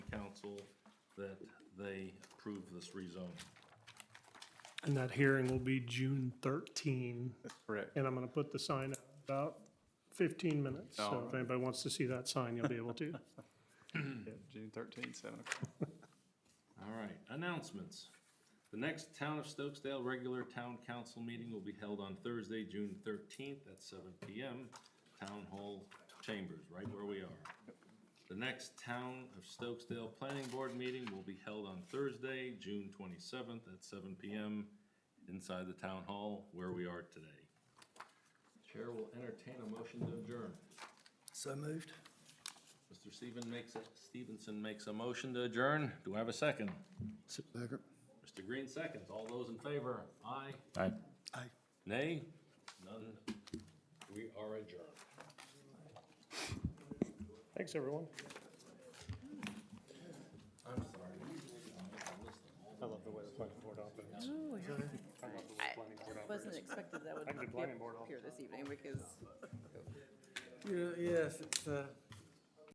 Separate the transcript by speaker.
Speaker 1: council that they approve this rezoning.
Speaker 2: And that hearing will be June 13,
Speaker 3: Correct.
Speaker 2: and I'm going to put the sign up about 15 minutes. So if anybody wants to see that sign, you'll be able to.
Speaker 3: Yep, June thirteenth, seven o'clock.
Speaker 1: All right, announcements. The next Town of Stokesdale regular town council meeting will be held on Thursday, June thirteenth at seven PM, Town Hall Chambers, right where we are. The next Town of Stokesdale Planning Board meeting will be held on Thursday, June twenty-seventh at seven PM inside the Town Hall where we are today. Chair will entertain a motion to adjourn.
Speaker 4: So moved.
Speaker 1: Mr. Steven makes, a- Stevenson makes a motion to adjourn. Do I have a second?
Speaker 4: Second.
Speaker 1: Mr. Green seconds. All those in favor? Aye.
Speaker 5: Aye.
Speaker 4: Aye.
Speaker 1: Nay? None. We are adjourned.
Speaker 2: Thanks, everyone.
Speaker 1: I'm sorry. I'm listening.
Speaker 2: I love the way the planning board operates.
Speaker 6: Wasn't expected that would
Speaker 2: I'm the
Speaker 6: be
Speaker 2: planning board
Speaker 6: here this evening because
Speaker 4: Yes, it's, uh,